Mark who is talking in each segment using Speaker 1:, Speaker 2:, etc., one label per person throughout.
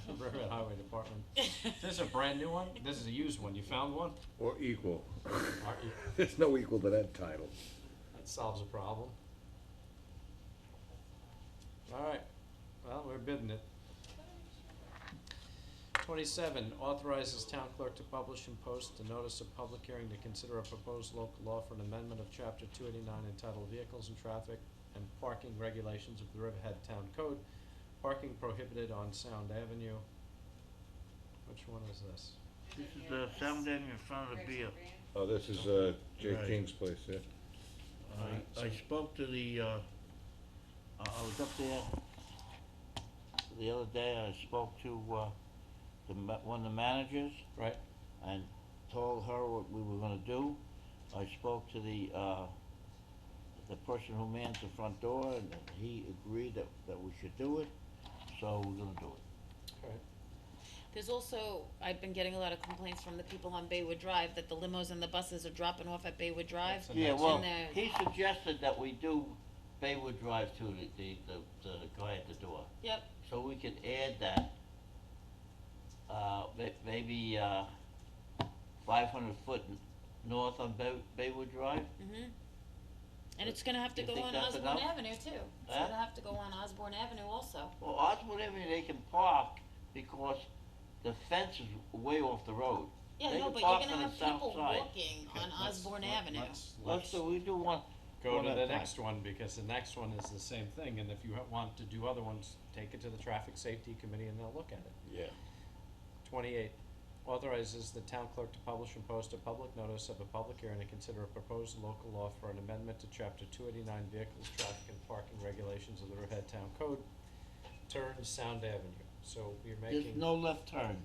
Speaker 1: Riverhead Highway Department. This is a brand new one? This is a used one. You found one?
Speaker 2: Or equal.
Speaker 1: Aren't you-
Speaker 2: There's no equal to that title.
Speaker 1: That solves a problem. All right, well, we're bidding it. Twenty-seven, authorizes town clerk to publish and post a notice of public hearing to consider a proposed local law for an amendment of chapter two eighty-nine entitled Vehicles and Traffic and Parking Regulations of the Riverhead Town Code, parking prohibited on Sound Avenue. Which one is this?
Speaker 3: This is the sound end in front of the beer.
Speaker 2: Oh, this is, uh, Jay
Speaker 3: Right.
Speaker 2: King's place, yeah?
Speaker 3: I, I spoke to the, uh, I I was up there the other day, I spoke to, uh, the, ma- one of the managers
Speaker 1: Right,
Speaker 3: and told her what we were gonna do. I spoke to the, uh, the person who mans the front door and he agreed that, that we should do it, so we're gonna do it.
Speaker 1: all right.
Speaker 4: There's also, I've been getting a lot of complaints from the people on Baywood Drive that the limos and the buses are dropping off at Baywood Drive.
Speaker 1: That's a
Speaker 3: Yeah,
Speaker 1: nice-
Speaker 3: well,
Speaker 4: And they're-
Speaker 3: he suggested that we do Baywood Drive too, the, the, the, the guy at the door.
Speaker 4: Yep,
Speaker 3: So we could add that, uh, may- maybe, uh, five hundred foot n- north on Bay, Baywood Drive?
Speaker 4: mhm. And it's gonna have to
Speaker 3: You
Speaker 4: go
Speaker 3: think
Speaker 4: on
Speaker 3: that's
Speaker 4: Osborne
Speaker 3: enough?
Speaker 4: Avenue too. It's
Speaker 3: Huh?
Speaker 4: gonna have to go on Osborne Avenue also.
Speaker 3: Well, Osborne Avenue, they can park because the fence is way off the road.
Speaker 4: Yeah,
Speaker 3: They
Speaker 4: no,
Speaker 3: can
Speaker 4: but you're
Speaker 3: park
Speaker 4: gonna
Speaker 3: on the
Speaker 4: have
Speaker 3: south
Speaker 4: people
Speaker 3: side.
Speaker 4: walking
Speaker 1: Okay,
Speaker 4: on
Speaker 1: let's-
Speaker 4: Osborne
Speaker 1: let-
Speaker 4: Avenue.
Speaker 1: let's-
Speaker 3: Let's, do- we do one,
Speaker 1: go
Speaker 3: One
Speaker 1: to
Speaker 3: at
Speaker 1: the
Speaker 3: a time.
Speaker 1: next one, because the next one is the same thing, and if you ha- want to do other ones, take it to the traffic safety committee and they'll look at it.
Speaker 2: Yeah.
Speaker 1: Twenty-eight, authorizes the town clerk to publish and post a public notice of a public hearing to consider a proposed local law for an amendment to chapter two eighty-nine vehicles, traffic and parking regulations of the Riverhead Town Code, turn Sound Avenue, so you're
Speaker 3: there's
Speaker 1: making
Speaker 3: no left turn.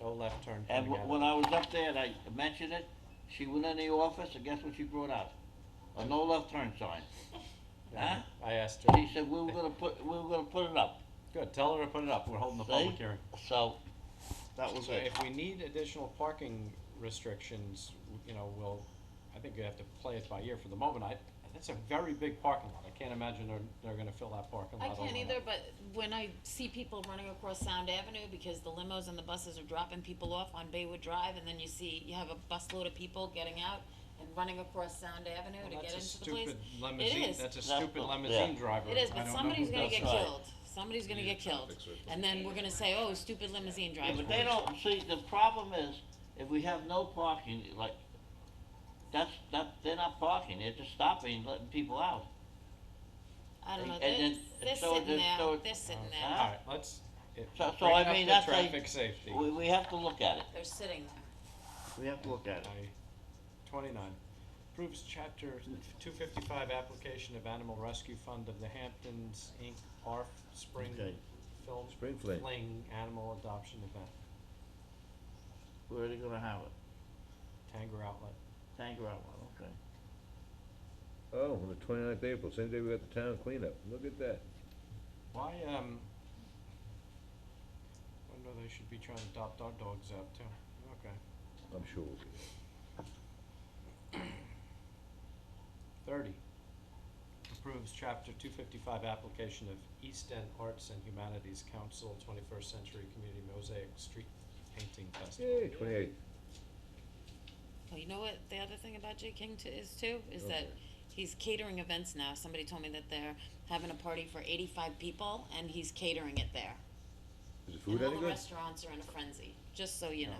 Speaker 1: no left turn
Speaker 3: And
Speaker 1: coming
Speaker 3: wh-
Speaker 1: out.
Speaker 3: when I was up there and I mentioned it, she went in the office and guess what she brought out? A no left turn sign.
Speaker 1: Yeah, I asked her,
Speaker 3: She said, we were gonna put, we were gonna put it up.
Speaker 1: good, tell her to put it up, we're holding the public
Speaker 3: See?
Speaker 1: hearing.
Speaker 3: So, that was
Speaker 1: So
Speaker 3: it.
Speaker 1: if we need additional parking restrictions, w- you know, we'll, I think we have to play it by ear for the moment, I, that's a very big parking lot, I can't imagine they're, they're gonna fill that parking
Speaker 4: I
Speaker 1: lot
Speaker 4: can't
Speaker 1: overnight.
Speaker 4: either, but when I see people running across Sound Avenue because the limos and the buses are dropping people off on Baywood Drive and then you see, you have a busload of people getting out and running across Sound
Speaker 1: Well,
Speaker 4: Avenue to get into the
Speaker 1: That's a
Speaker 4: place.
Speaker 1: stupid limousine,
Speaker 4: is.
Speaker 1: that's a
Speaker 3: That's
Speaker 1: stupid
Speaker 3: not-
Speaker 1: limousine
Speaker 3: yeah.
Speaker 1: driver, I
Speaker 4: It is, but
Speaker 1: don't know
Speaker 4: somebody's
Speaker 1: who
Speaker 4: gonna
Speaker 1: does
Speaker 4: get
Speaker 3: that.
Speaker 4: killed, somebody's gonna get killed,
Speaker 2: fix it.
Speaker 4: and then we're gonna say, oh, stupid limousine
Speaker 3: Yeah,
Speaker 4: driver.
Speaker 3: but they don't, see, the problem is, if we have no parking, like, that's, that, they're not parking, they're just stopping, letting people out.
Speaker 4: I don't know,
Speaker 3: and
Speaker 4: they're,
Speaker 3: then-
Speaker 4: they're
Speaker 3: so
Speaker 4: sitting
Speaker 3: there's
Speaker 4: there,
Speaker 3: no-
Speaker 4: they're sitting
Speaker 1: Okay.
Speaker 4: there,
Speaker 1: Alright, let's, it,
Speaker 3: So- so
Speaker 1: bring
Speaker 3: I
Speaker 1: up
Speaker 3: mean,
Speaker 1: the
Speaker 3: that's like-
Speaker 1: traffic safety.
Speaker 3: We, we have to look at it.
Speaker 4: they're sitting there.
Speaker 3: We have to look at
Speaker 1: I- Twenty-nine, approves chapter two fifty-five application of Animal Rescue Fund of the Hamptons, Inc., ARF Spring
Speaker 3: Okay.
Speaker 1: Film
Speaker 2: Spring fling.
Speaker 1: Fling Animal Adoption Event,
Speaker 3: Where are they gonna have it?
Speaker 1: Tanger Outlet.
Speaker 3: Tanger Outlet, okay.
Speaker 2: Oh, on the twenty-ninth of April, same day we got the town cleanup. Look at that.
Speaker 1: Why, um, wonder they should be trying to adopt our dogs out too, okay.
Speaker 2: I'm sure we'll be.
Speaker 1: Thirty, approves chapter two fifty-five application of East End Arts and Humanities Council Twenty-First Century Community Mosaic Street Painting Festival.
Speaker 2: Yay, twenty-eighth.
Speaker 4: Oh, you know what the other thing about Jay King to, is too, is that
Speaker 2: Okay.
Speaker 4: he's catering events now, somebody told me that they're having a party for eighty-five people, and he's catering it there.
Speaker 2: Is the food
Speaker 4: And
Speaker 2: any
Speaker 4: all the
Speaker 2: good?
Speaker 4: restaurants are in a frenzy, just so you know.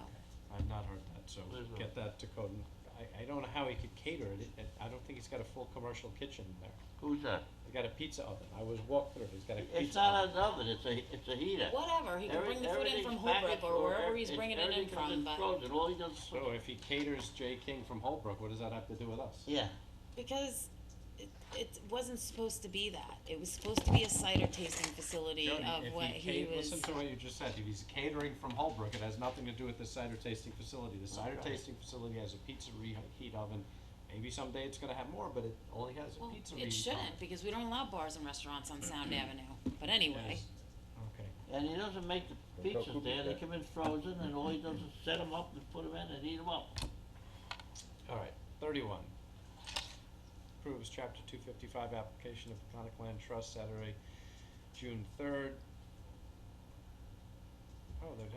Speaker 1: I've not heard that, so
Speaker 3: There's no-
Speaker 1: get that to Coden. I, I don't know how he could cater it, it, I don't think he's got a full commercial kitchen there.
Speaker 3: Who's that?
Speaker 1: He's got a pizza oven, I was walked through, it. he's got a
Speaker 3: It's
Speaker 1: pizza
Speaker 3: not
Speaker 1: oven.
Speaker 3: an oven, it's a, it's a heater.
Speaker 4: Whatever, he can
Speaker 3: Every-
Speaker 4: bring the food in
Speaker 3: everything's
Speaker 4: from Holbrook
Speaker 3: packaged
Speaker 4: or wherever
Speaker 3: every-
Speaker 4: he's bringing it in
Speaker 3: everything comes
Speaker 4: from, but,
Speaker 3: frozen, all he does is
Speaker 1: So if he caters J. King from Holbrook, what does that have to do with us?
Speaker 3: Yeah,
Speaker 4: because it, it wasn't supposed to be that. It was supposed to be a cider tasting facility
Speaker 1: Jody,
Speaker 4: of
Speaker 1: if
Speaker 4: what
Speaker 1: he
Speaker 4: he
Speaker 1: ca-
Speaker 4: was.
Speaker 1: Listen to what you just said, if he's catering from Holbrook, it has nothing to do with the cider tasting facility. The cider
Speaker 3: Okay.
Speaker 1: tasting facility has a pizza reheat oven, maybe someday it's gonna have more, but it only has a
Speaker 4: Well,
Speaker 1: pizza reheat oven.
Speaker 4: it shouldn't, because we don't allow bars and restaurants on Sound Avenue, but anyway.
Speaker 1: Yes. Okay.
Speaker 3: and he doesn't make the
Speaker 2: Well,
Speaker 3: pizzas
Speaker 2: cook
Speaker 3: there,
Speaker 2: it
Speaker 3: they
Speaker 2: then.
Speaker 3: come in frozen, and all he does is set them up and put them in and eat them up.
Speaker 1: All right, thirty-one. Approves chapter two fifty-five application of Peconic Land Trust Saturday, June third, Oh,